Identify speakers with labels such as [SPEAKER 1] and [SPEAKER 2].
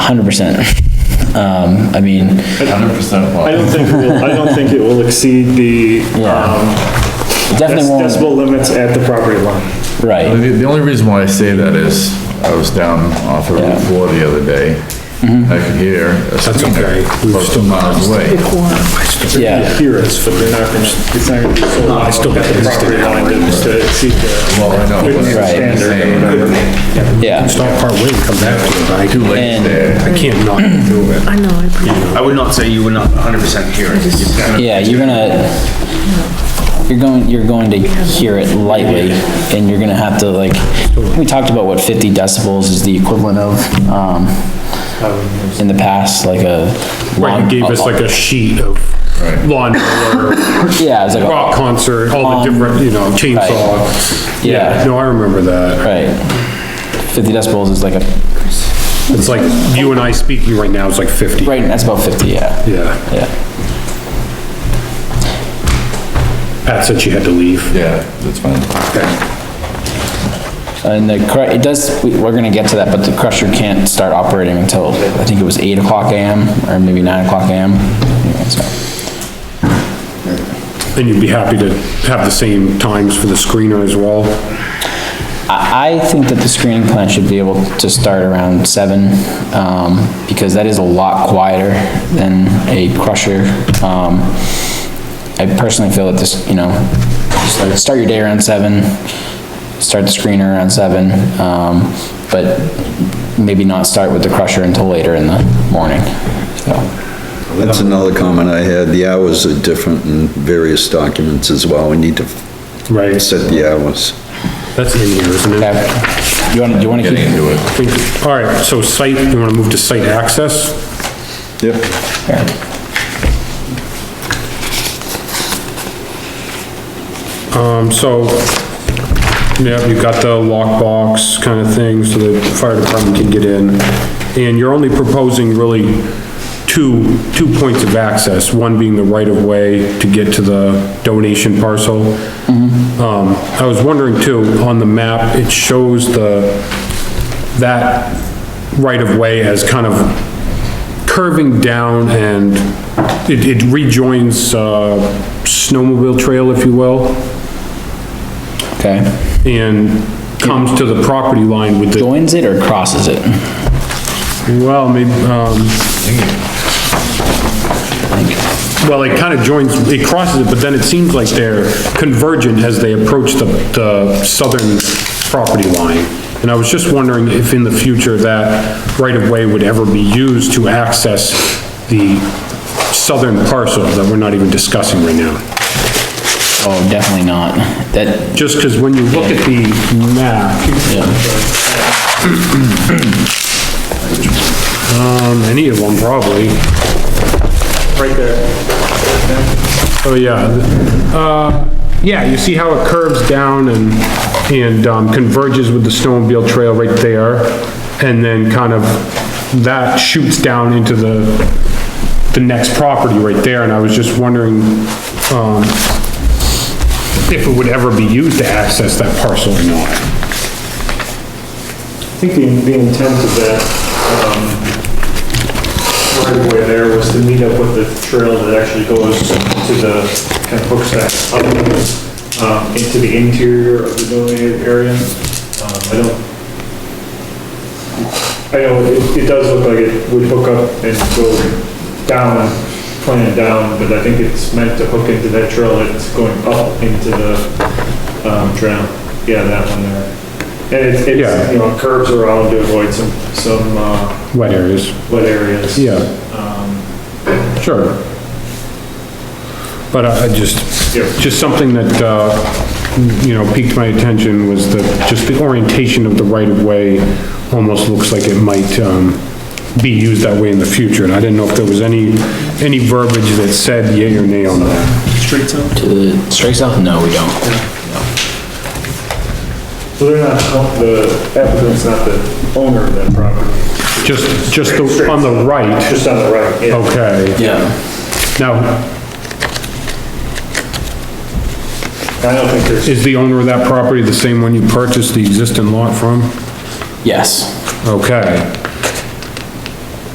[SPEAKER 1] Hundred percent. Um, I mean,
[SPEAKER 2] Hundred percent
[SPEAKER 3] I don't think, it will- I don't think it will exceed the um,
[SPEAKER 1] it definitely
[SPEAKER 3] dec-
[SPEAKER 1] won't,
[SPEAKER 3] decibel limits at the property line.
[SPEAKER 2] The,
[SPEAKER 1] right,
[SPEAKER 2] the only reason why I say that is, I was down off of Route Four the other day,
[SPEAKER 3] Mm-hmm.
[SPEAKER 2] I could hear a screamer close to miles away.
[SPEAKER 1] yeah,
[SPEAKER 3] Here it's, but they're not gonna, it's not gonna be so loud at the property line to to exceed the
[SPEAKER 2] Well, I know, but
[SPEAKER 3] Right.
[SPEAKER 2] I'm just saying,
[SPEAKER 1] yeah.
[SPEAKER 4] Stop part way and come back to it, but I do like,
[SPEAKER 1] And-
[SPEAKER 2] there,
[SPEAKER 4] I can't not do it.
[SPEAKER 5] I know, I appreciate
[SPEAKER 6] I would not say you were not hundred percent hearing. You've got to-
[SPEAKER 1] Yeah, you're gonna, you're going, you're going to hear it lightly, and you're gonna have to like, we talked about what fifty decibels is the equivalent of, um, in the past, like a.
[SPEAKER 4] Right,
[SPEAKER 1] lawn-
[SPEAKER 4] you gave us like a sheet of
[SPEAKER 2] Right.
[SPEAKER 4] lawn mower,
[SPEAKER 1] Yeah, it's like, a-
[SPEAKER 4] rock concert, all the different, you know, chainsaw.
[SPEAKER 1] Yeah.
[SPEAKER 4] No, I remember that.
[SPEAKER 1] right, fifty decibels is like a,
[SPEAKER 4] It's like, you and I speaking right now is like 50.
[SPEAKER 1] right, that's about fifty, yeah,
[SPEAKER 4] Yeah.
[SPEAKER 1] yeah,
[SPEAKER 4] Pat said she had to leave.
[SPEAKER 2] yeah, that's fine.
[SPEAKER 1] and the cru, it does, we- we're gonna get to that, but the crusher can't start operating until, I think it was eight o'clock AM, or maybe nine o'clock AM. Yeah, so.
[SPEAKER 4] And you'd be happy to have the same times for the screener as well?
[SPEAKER 1] I, I think that the screening plan should be able to start around seven, um, because that is a lot quieter than a crusher. Um, I personally feel that this, you know, start- start your day around seven, start the screener around seven, um, but maybe not start with the crusher until later in the morning, so.
[SPEAKER 7] That's another comment I had, the hours are different in various documents as well, we need to
[SPEAKER 4] Right,
[SPEAKER 7] set the hours.
[SPEAKER 4] that's in here, isn't it?
[SPEAKER 1] Okay. You wanna, do you wanna
[SPEAKER 2] Getting
[SPEAKER 1] keep?
[SPEAKER 2] into it.
[SPEAKER 4] Think- All right, so site, you wanna move to site access?
[SPEAKER 7] Yep.
[SPEAKER 4] Um, so, yeah, you've got the lockbox kind of thing, so the fire department can get in. And you're only proposing really two, two points of access, one being the right-of-way to get to the donation parcel. Um, I was wondering too, on the map, it shows the, that right-of-way as kind of curving down and it, it rejoins, uh, snowmobile trail, if you will
[SPEAKER 1] Okay.
[SPEAKER 4] and comes to the property line with the,
[SPEAKER 1] Joins it or crosses it?
[SPEAKER 4] well, maybe, um, well, it kind of joins, it crosses it, but then it seems like they're convergent as they approach the, the southern property line. And I was just wondering if in the future that right-of-way would ever be used to access the southern parcel that we're not even discussing right now.
[SPEAKER 1] Oh, definitely not. That,
[SPEAKER 4] Just because when you look at the map,
[SPEAKER 1] yeah,
[SPEAKER 4] um, any of them probably,
[SPEAKER 3] Right there.
[SPEAKER 4] Oh, yeah. Uh, yeah, you see how it curves down and, and um, converges with the snowmobile trail right there? And then kind of, that shoots down into the, the next property right there, and I was just wondering, um, if it would ever be used to access that parcel or not.
[SPEAKER 3] I think the, the intent of that, um, right away there was to meet up with the trail that actually goes to the, kind of hooks that up, um, into the interior of the donated area. Um, I don't, I know, it, it does look like it would hook up and go down, plan down, but I think it's meant to hook into that trail that's going up into the, um, drown. Yeah, that one there. And it's,
[SPEAKER 4] Yeah.
[SPEAKER 3] it's, you know, curves around to avoid some, some, uh,
[SPEAKER 4] Wet areas.
[SPEAKER 3] wet areas.
[SPEAKER 4] Yeah.
[SPEAKER 3] Um,
[SPEAKER 4] Sure. But I I just,
[SPEAKER 3] Yeah.
[SPEAKER 4] just something that, uh, you know, piqued my attention was the, just the orientation of the right-of-way almost looks like it might um, be used that way in the future, and I didn't know if there was any, any verbiage that said yea or nay on that.
[SPEAKER 1] to the uh, straight south? No, we don't.
[SPEAKER 3] So they're not, the applicant's not the owner of that property,
[SPEAKER 4] Just, just the- on the right,
[SPEAKER 3] just on the right, yeah.
[SPEAKER 4] okay.
[SPEAKER 1] Yeah,
[SPEAKER 4] Now,
[SPEAKER 3] I don't think there's,
[SPEAKER 4] is the owner of that property the same one you purchased the existing lot from?
[SPEAKER 1] yes.
[SPEAKER 4] Okay.